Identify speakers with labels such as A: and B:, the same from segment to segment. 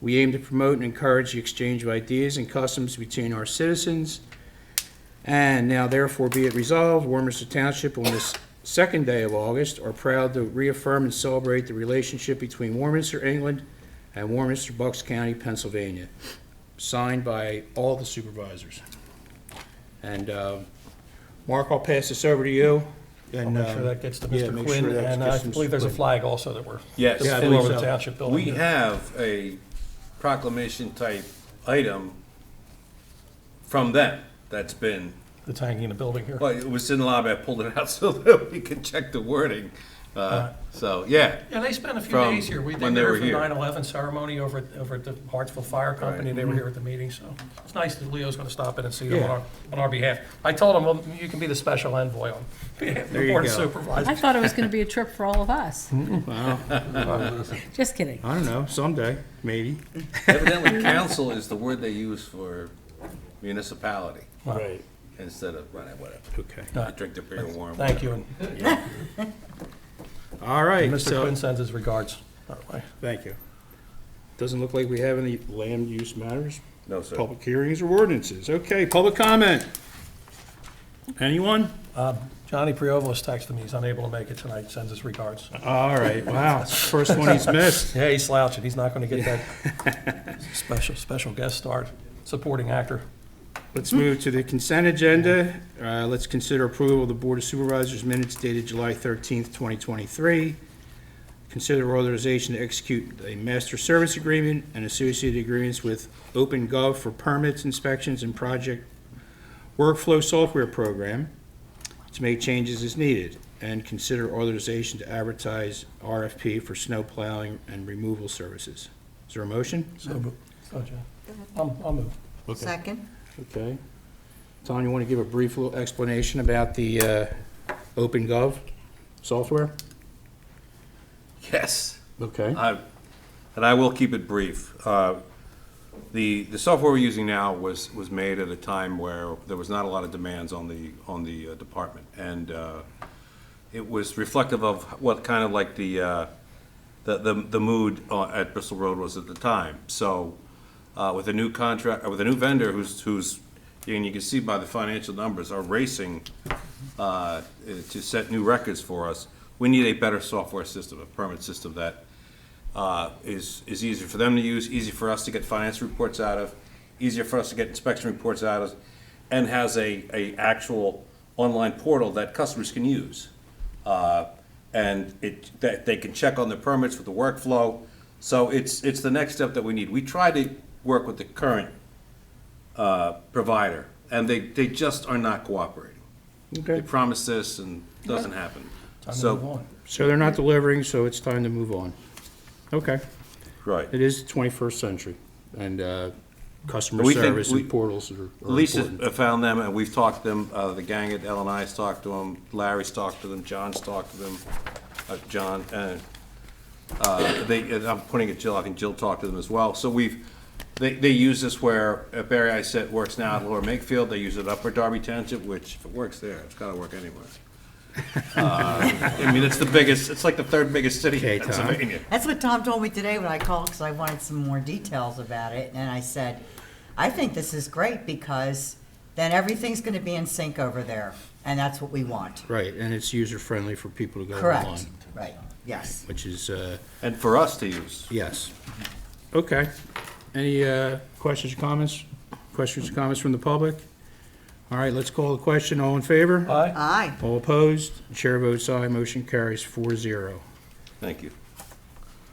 A: We aim to promote and encourage the exchange of ideas and customs between our citizens. And now therefore be it resolved, Warminster Township on this second day of August are proud to reaffirm and celebrate the relationship between Warminster, England and Warminster, Bucks County, Pennsylvania, signed by all the supervisors. And, uh, Mark, I'll pass this over to you.
B: I'll
C: And,
B: make sure
C: um,
B: that gets to
C: yeah,
B: Mr.
C: make
B: Quinn,
C: sure that's
B: and I
C: gets to Mr.
B: believe there's a
C: Quinn.
B: flag also that we're.
D: Yes.
B: that's
C: Yeah, I
B: flew over
C: believe
B: the
C: so.
B: township building.
D: We have a proclamation type item from them that's been,
B: It's hanging in the building here.
D: well, it was in the lobby, I pulled it out so that we could check the wording. Uh, So, yeah,
B: Yeah, they spent a few
D: From
B: days here. We, they
D: when they
B: were
D: were
B: for
D: here.
B: 9/11 ceremony over, at- over at the Hartsville Fire Company.
C: Mm-hmm.
B: They were here at the meeting, so it's nice that Leo's going to stop in and see them on our, on our behalf. I told him, well, you can be the special envoy on behalf of the
C: you
B: Board of
C: go.
B: Supervisors.
E: I thought it was going to be a trip for all of us.
C: well,
E: Just kidding.
C: I don't know, someday, maybe.
D: evidently council is the word they use for municipality
B: Right.
D: instead of, well, whatever.
C: Okay.
D: You Drink the beer warm.
B: Thank you, and
C: All right,
B: Mr.
C: so,
B: Quinn sends his regards. by the way.
C: thank you. Doesn't look like we have any land use matters,
D: No, sir.
C: public hearings or ordinances. Okay, public comment. Anyone?
B: Uh, Johnny Priovalis texted me, he's unable to make it tonight, sends his regards.
C: All right, wow, first one he's missed.
B: Yeah, he's slouching, he's not going to get that special, special guest star, supporting actor.
C: Let's move to the consent agenda. Uh, Let's consider approval of the Board of Supervisors minutes dated July 13th, 2023. Consider authorization to execute a master service agreement and associated agreements with OpenGov for permits, inspections, and project workflow software program to make changes as needed. And consider authorization to advertise RFP for snow plowing and removal services. Is there a motion?
B: So, mo- so, John, I'll, I'll move.
F: Second?
C: Okay. Tom, you want to give a brief little explanation about the uh, OpenGov software?
D: Yes.
C: Okay.
D: I- And I will keep it brief. Uh, The, the software we're using now was, was made at a time where there was not a lot of demands on the, on the uh, department. And uh, it was reflective of what kind of like the, uh, the, the the mood uh, at Bristol Road was at the time. So uh, with a new contract, uh, with a new vendor who's, who's, and you can see by the financial numbers, are racing uh, to set new records for us, we need a better software system, a permit system that uh, is, is easier for them to use, easier for us to get finance reports out of, easier for us to get inspection reports out of, and has a, a actual online portal that customers can use. Uh, And it, that they can check on their permits with the workflow. So it's, it's the next step that we need. We try to work with the current uh, provider, and they, they just are not cooperating. They
C: Okay.
D: promise this and doesn't happen.
B: Time to move
D: So,
B: on.
C: So they're not delivering, so it's time to move on. Okay.
D: right.
C: It is the 21st century, and uh, customer
D: We think
C: service
D: we-
C: and portals are are
D: Lisa
C: important.
D: uh, found them, and we've talked to them, uh, the gang at LNI's talked to them, Larry's talked to them, John's talked to them, uh, John, uh, uh, they, and I'm putting it Jill, I think Jill talked to them as well, so we've, they, they use this where uh, Barry I said works now at Lower Makefield, they use it up for Darby Township, which, if it works there, it's gotta work anywhere. Uh, I mean, it's the biggest, it's like the third biggest city
C: Okay,
D: in
C: Tom.
D: Pennsylvania.
F: That's what Tom told me today when I called, because I wanted some more details about it, and I said, I think this is great, because then everything's gonna be in sync over there, and that's what we want.
C: Right, and it's user-friendly for people to go online,
F: Correct, right, yes.
C: which is, uh,
D: And for us to use.
C: yes. Okay. Any uh, questions or comments? Questions or comments from the public? All right, let's call the question. All in favor?
B: Aye?
F: Aye,
C: All opposed? Chair votes aye, motion carries 4-0.
D: Thank you.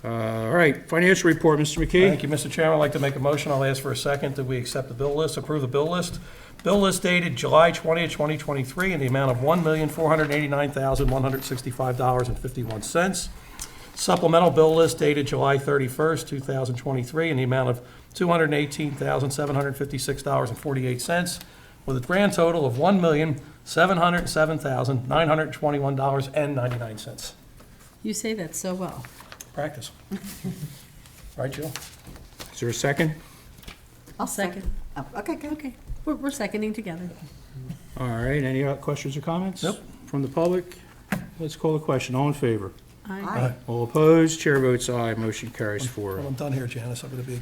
C: All right, financial report, Mr.
B: Thank
C: McKee.
B: you, Mr. Chairman. I'd like to make a motion. I'll ask for a second that we accept the bill list, approve the bill list. Bill list dated July 20th, 2023, in the amount of $1,489,165.51. Supplemental bill list dated July 31st, 2023, in the amount of $218,756.48, with a grand total of $1,707,921.99.
E: You say that so well.
B: Practice. Right, Jill?
C: Is there a second?
F: I'll
E: Second.
F: second. Oh, Okay, good.
E: Okay, we're, we're seconding together.
C: All right, any other questions or comments?
B: Nope.
C: From the public? Let's call the question. All in favor?
E: Aye.
F: Aye.
C: All opposed? Chair votes aye, motion carries 4-0.
B: Well, I'm done here, Janice. I'm going to be